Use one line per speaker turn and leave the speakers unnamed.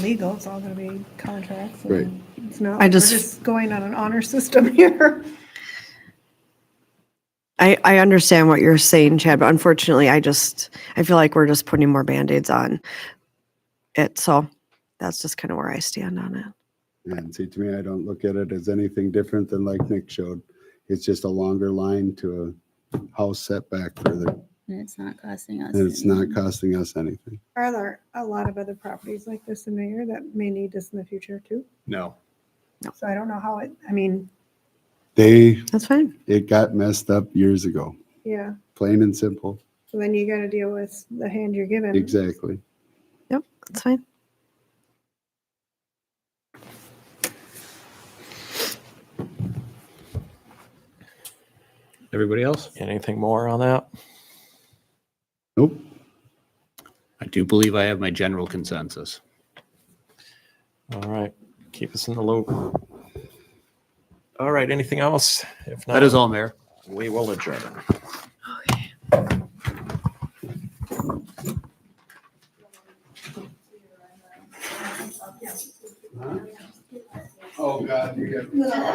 legal, it's all gonna be contracts.
Right.
and It's not,
I
we're
just-
just going on an honor system here.
I, I understand what you're saying, Chad, but unfortunately, I just, I feel like we're just putting more Band-Aids on it. So that's just kind of where I stand on it.
And see, to me, I don't look at it as anything different than like Nick showed. It's just a longer line to a house setback further,
And it's not costing us.
and it's not
anything.
costing us anything.
Are there a lot of other properties like this in the area that may need this in the future too?
No.
So I don't know how it, I mean,
They,
That's fine.
it got messed up years ago,
yeah,
plain and simple.
so then you gotta deal with the hand you're given.
Exactly.
That's fine.
Everybody else?
Anything more on that?
Nope.
I do believe I have my general consensus.
All right, keep us in the loop. All right, anything else? If not,
That is all, Mayor.
we will adjourn.
Oh, God,